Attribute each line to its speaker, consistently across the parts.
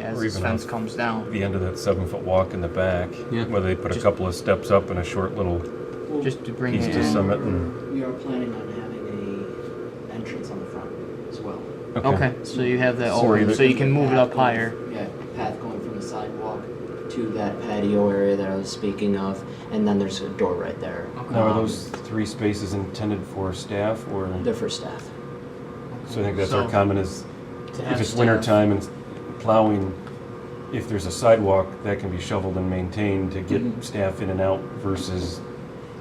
Speaker 1: as
Speaker 2: Or
Speaker 1: this
Speaker 2: even a-
Speaker 1: fence comes down.
Speaker 2: the end of that seven foot walk in the back,
Speaker 3: Yeah.
Speaker 2: where they put a
Speaker 1: Just-
Speaker 2: couple of steps up and a short little
Speaker 4: Well,
Speaker 1: Just to bring
Speaker 2: piece
Speaker 1: it
Speaker 2: to
Speaker 1: in.
Speaker 2: summit and.
Speaker 4: We are planning on having a entrance on the front as well.
Speaker 1: Okay, so you have that
Speaker 2: So
Speaker 1: already,
Speaker 2: either-
Speaker 1: so you can move it up
Speaker 4: Path going-
Speaker 1: higher.
Speaker 4: Yeah, path going from the sidewalk to that patio area that I was speaking of, and then there's a door right there.
Speaker 3: Now, are
Speaker 4: Um,
Speaker 3: those three spaces intended for staff or?
Speaker 4: They're for staff.
Speaker 3: So I think that's our
Speaker 1: So-
Speaker 3: comment is,
Speaker 1: To have
Speaker 3: if it's
Speaker 1: staff.
Speaker 3: winter time and plowing, if there's a sidewalk, that can be shoveled and maintained to get
Speaker 1: Mm-hmm.
Speaker 3: staff in and out versus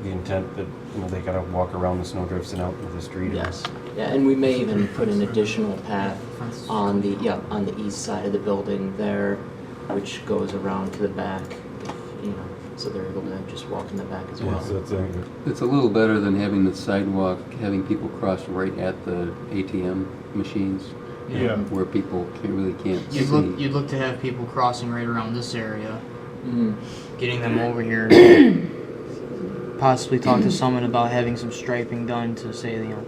Speaker 3: the intent that, you know, they gotta walk around the snowdrifts and out into the street.
Speaker 4: Yes. Yeah, and we may even put an additional path on the, yeah, on the east side of the building there, which goes around to the back, if, you know, so they're able to just walk in the back as
Speaker 3: Yeah,
Speaker 4: well.
Speaker 3: so that's, uh, I think,
Speaker 5: It's a little better than having the sidewalk, having people cross right at the ATM machines
Speaker 2: Yeah.
Speaker 5: where people can't, really can't
Speaker 1: You'd look,
Speaker 5: see.
Speaker 1: you'd look to have people crossing right around this area,
Speaker 6: Hmm.
Speaker 4: Mhm.
Speaker 1: getting them over here. Possibly talk to someone about having some striping done to say, you know,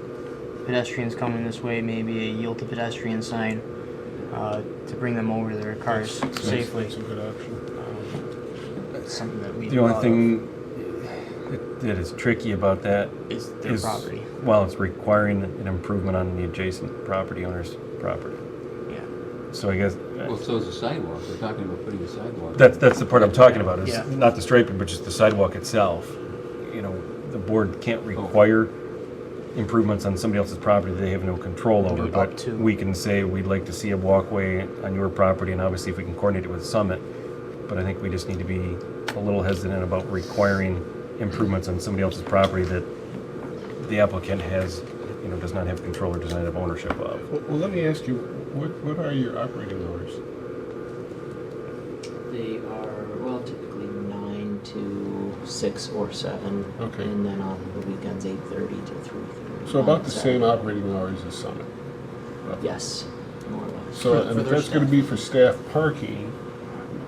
Speaker 1: pedestrians coming this way, maybe a yield to pedestrian sign, uh, to bring them over their cars safely. Um,
Speaker 6: That's a good option.
Speaker 1: That's something that we.
Speaker 2: The only
Speaker 1: thought
Speaker 2: thing that- that is tricky about that
Speaker 1: of Is their
Speaker 2: is,
Speaker 1: property,
Speaker 2: well, it's requiring an improvement on the adjacent property owner's property.
Speaker 1: yeah.
Speaker 2: So I guess, uh,
Speaker 5: Well, so is the sidewalk. We're talking about putting a sidewalk.
Speaker 2: That's, that's the part I'm talking about,
Speaker 1: Yeah.
Speaker 2: is not the striping, but just the sidewalk itself. You know, the board can't require improvements on somebody else's property that they have no control
Speaker 1: Do
Speaker 2: over.
Speaker 1: it up
Speaker 2: But
Speaker 1: to.
Speaker 2: we can say, we'd like to see a walkway on your property, and obviously if we can coordinate it with Summit. But I think we just need to be a little hesitant about requiring improvements on somebody else's property that the applicant has, you know, does not have control or does not have ownership of.
Speaker 6: Well, well, let me ask you, what, what are your operating hours?
Speaker 4: They are, well, typically nine to six or seven.
Speaker 6: Okay.
Speaker 4: And then on the weekends, eight thirty to three thirty.
Speaker 6: So about the same operating hours as Summit.
Speaker 4: Yes, more or less.
Speaker 6: So,
Speaker 1: For-
Speaker 6: and
Speaker 1: for
Speaker 6: if
Speaker 1: their
Speaker 6: that's gonna be for staff parking,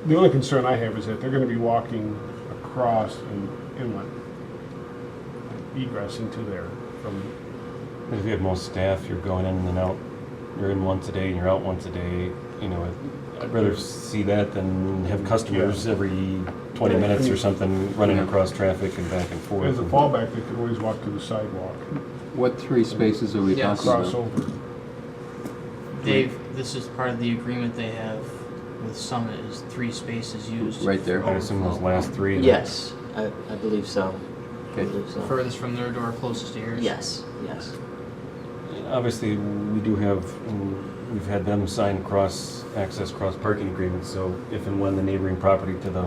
Speaker 6: the only concern I have is that they're gonna be walking across an inlet, egress into there from,
Speaker 3: But If you had most staff, you're going in and then out, you're in once a day and you're out once a day, you know, I'd- I'd rather see that than have customers every twenty minutes or something running across traffic and back and forth.
Speaker 6: as a
Speaker 3: and-
Speaker 6: fallback, they could always walk to the sidewalk,
Speaker 5: What three spaces are we
Speaker 1: Yeah.
Speaker 5: talking
Speaker 6: cross
Speaker 5: about?
Speaker 6: over.
Speaker 1: Dave, this is part of the agreement they have with Summit is three spaces used.
Speaker 5: Right there.
Speaker 3: I assume those last three. that-
Speaker 4: Yes, I, I believe so. I
Speaker 5: Okay.
Speaker 4: believe so.
Speaker 1: Furthest from their door, closest to yours.
Speaker 4: Yes, yes.
Speaker 3: Obviously, we do have, mm, we've had them sign cross access, cross parking agreements, so if and when the neighboring property to the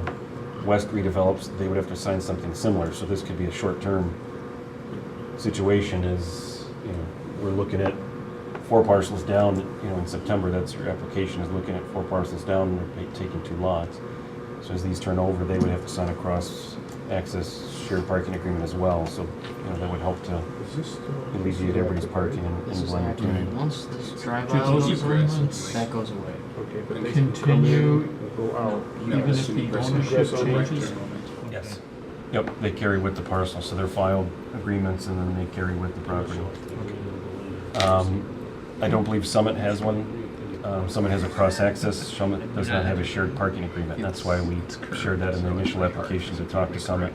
Speaker 3: west redevelops, they would have to sign something similar, so this could be a short-term situation is, you know, we're looking at four parcels down, you know, in September, that's your application is looking at four parcels down, and they're taking two lots. So as these turn over, they would have to sign a cross access shared parking agreement as well, so, you know, that would help to
Speaker 6: Is this still-
Speaker 3: alleviate everybody's parking and
Speaker 1: This
Speaker 3: and
Speaker 1: is
Speaker 3: blend
Speaker 1: not
Speaker 3: between.
Speaker 1: doing it. Once this drive
Speaker 7: Do
Speaker 1: out
Speaker 7: those
Speaker 1: goes away,
Speaker 7: agreements-
Speaker 1: that goes away.
Speaker 6: Okay, but they can come
Speaker 7: Continue.
Speaker 6: in and go out.
Speaker 7: Even if the ownership changes?
Speaker 2: Yes.
Speaker 3: Yep, they carry with the parcel, so they're filed agreements and then they carry with the property. Um, I don't believe Summit has one. Um, Summit has a cross-access, Summit does not have a shared parking agreement. That's why we shared that in the initial application to talk to Summit,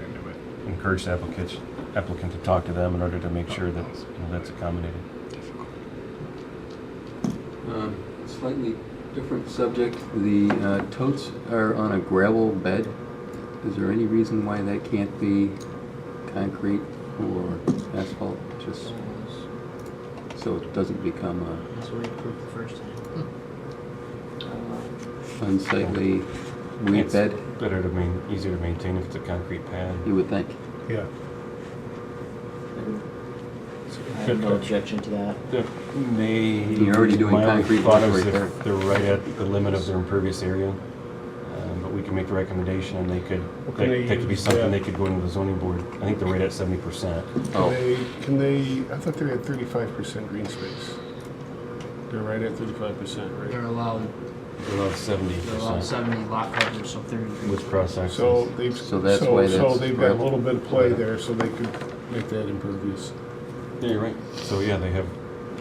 Speaker 3: encourage the applicant, applicant to talk to them in order to make sure that, you know, that's accommodated.
Speaker 5: Um, Slightly different subject. The uh, totes are on a gravel bed. Is there any reason why that can't be concrete or asphalt? Just so it doesn't become a
Speaker 1: That's what we approved the first
Speaker 6: Hmm.
Speaker 1: time.
Speaker 5: unsightly weed
Speaker 3: It's
Speaker 5: bed,
Speaker 3: Better to main, easier to maintain if it's a concrete pad.
Speaker 5: you would think.
Speaker 6: Yeah.
Speaker 4: Uh, I have no objection to that.
Speaker 3: That may.
Speaker 5: You're already doing
Speaker 3: my only
Speaker 5: concrete
Speaker 3: thought is
Speaker 5: work right
Speaker 3: if They're right at the limit of their impervious area, um, but we can make the recommendation and they could,
Speaker 6: What can they
Speaker 3: that that could be
Speaker 6: use?
Speaker 3: something
Speaker 6: Yeah.
Speaker 3: they could go into the zoning board. I think they're right at seventy percent.
Speaker 5: Oh.
Speaker 6: Can they, can they, I thought they had thirty-five percent green space. They're right at thirty-five percent,
Speaker 1: They're
Speaker 6: right?
Speaker 1: allowed,
Speaker 3: They're about seventy
Speaker 1: they're allowed
Speaker 3: percent
Speaker 1: seventy lot coverage, so thirty.
Speaker 3: with cross access.
Speaker 6: So they've,
Speaker 5: So
Speaker 6: so,
Speaker 5: that's why
Speaker 6: so
Speaker 5: that's
Speaker 6: they've got a
Speaker 5: gravel.
Speaker 6: little bit of play there, so they could make that impervious.
Speaker 3: Yeah, you're right. So yeah, they have,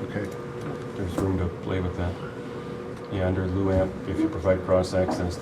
Speaker 6: Okay.
Speaker 3: there's room to play with that. Yeah, under LUAP, if you provide cross access,